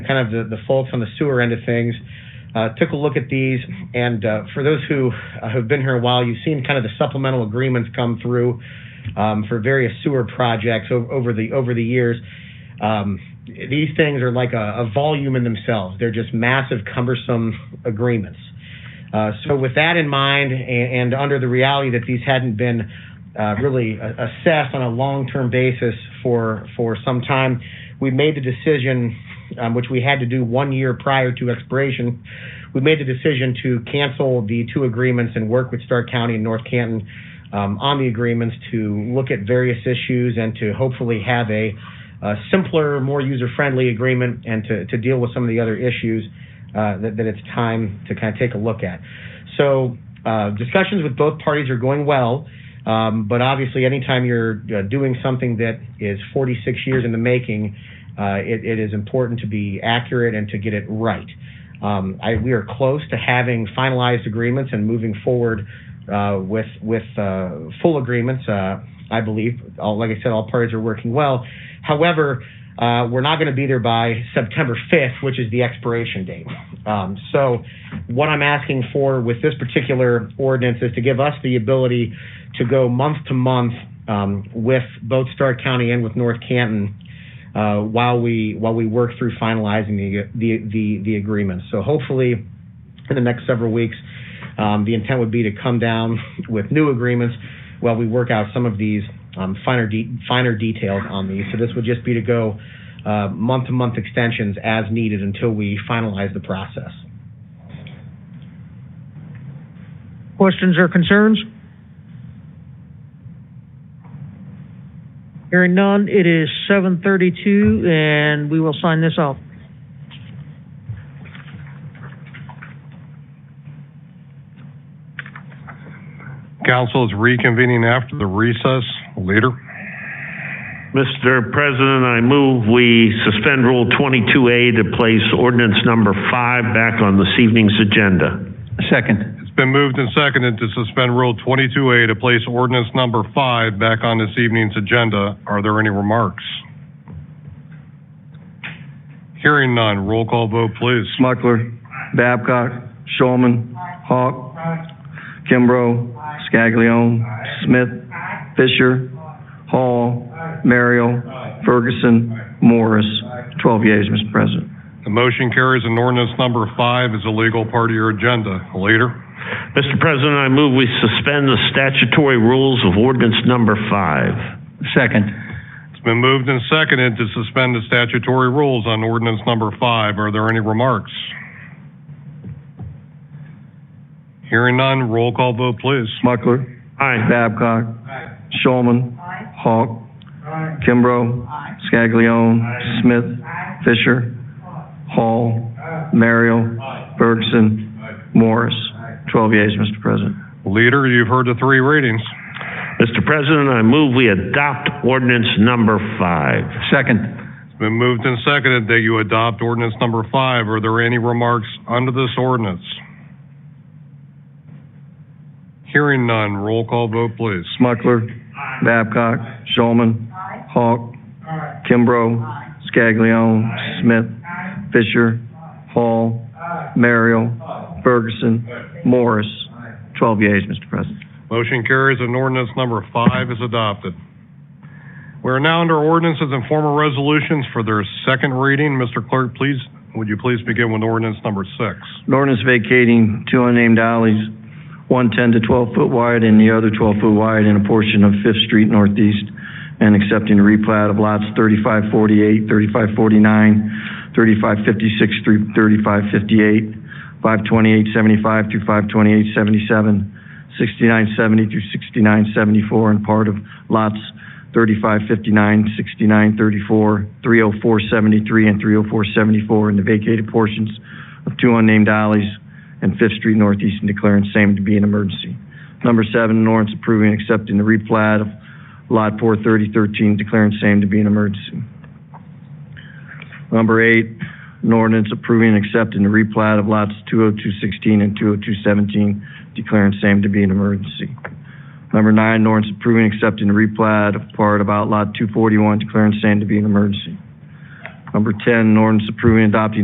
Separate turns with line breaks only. kind of the, the faults on the sewer end of things. Uh, took a look at these, and uh, for those who uh, have been here a while, you've seen kind of the supplemental agreements come through um, for various sewer projects o- over the over the years. Um, these things are like a, a volume in themselves. They're just massive, cumbersome agreements. Uh, so, with that in mind, and, and under the reality that these hadn't been uh, really a- assessed on a long-term basis for for some time, we made the decision, um, which we had to do one year prior to expiration. We made the decision to cancel the two agreements and work with Stark County and North Canton um, on the agreements to look at various issues and to hopefully have a, a simpler, more user-friendly agreement and to, to deal with some of the other issues uh, that, that it's time to kind of take a look at. So uh, discussions with both parties are going well. Um, but obviously, anytime you're uh, doing something that is 46 years in the making, uh, it, it is important to be accurate and to get it right. Um, I, we are close to having finalized agreements and moving forward uh, with with uh, full agreements. Uh, I believe, all, like I said, all parties are working well. However, uh, we're not going to be there by September 5th, which is the expiration date. Um, so, what I'm asking for with this particular ordinance is to give us the ability to go month to month um, with both Stark County and with North Canton uh, while we while we work through finalizing the the the, the agreement. So, hopefully, in the next several weeks, um, the intent would be to come down with new agreements while we work out some of these um, finer de- finer details on these. So this would just be to go uh, month-to-month extensions as needed until we finalize the process.
Questions or concerns? Hearing none, it is 7:32, and we will sign this off.
Council is reconvening after the recess. Leader?
Mr. President, I move we suspend Rule 22A to place ordinance number five back on this evening's agenda.
Second.
It's been moved and seconded to suspend Rule 22A to place ordinance number five back on this evening's agenda. Are there any remarks? Hearing none, roll call vote, please.
Smucker. Babcock. Showman. Hawk. Kimbrough. Scaglione. Smith. Fisher. Hall. Merrill. Ferguson. Morris. Twelve yeas, Mr. President.
The motion carries and ordinance number five is a legal part of your agenda. Leader?
Mr. President, I move we suspend the statutory rules of ordinance number five.
Second.
It's been moved and seconded to suspend the statutory rules on ordinance number five. Are there any remarks? Hearing none, roll call vote, please.
Smucker.
Aye.
Babcock. Showman. Hawk. Kimbrough. Scaglione. Smith. Fisher. Hall. Merrill. Ferguson. Morris. Twelve yeas, Mr. President.
Leader, you've heard the three readings.
Mr. President, I move we adopt ordinance number five.
Second.
It's been moved and seconded that you adopt ordinance number five. Are there any remarks under this ordinance? Hearing none, roll call vote, please.
Smucker. Babcock. Showman. Hawk. Kimbrough. Scaglione. Smith. Fisher. Hall. Merrill. Ferguson. Morris. Twelve yeas, Mr. President.
Motion carries and ordinance number five is adopted. We are now under ordinances and formal resolutions for their second reading. Mr. Clerk, please, would you please begin with ordinance number six?
An ordinance vacating two unnamed alleys, one 10 to 12 foot wide and the other 12 foot wide in a portion of Fifth Street Northeast, and accepting a replat of lots 3548, 3549, 3556 through 3558, 52875 through 52877, 6970 through 6974, and part of lots 3559, 6934, 30473, and 30474 in the vacated portions of two unnamed alleys and Fifth Street Northeast and declaring same to be an emergency. Number seven, an ordinance approving and accepting the replat of Lot 43013, declaring same to be an emergency. Number eight, an ordinance approving and accepting the replat of lots 20216 and 20217, declaring same to be an emergency. Number nine, an ordinance approving and accepting the replat of part about Lot 241, declaring same to be an emergency. Number 10, an ordinance approving and adopting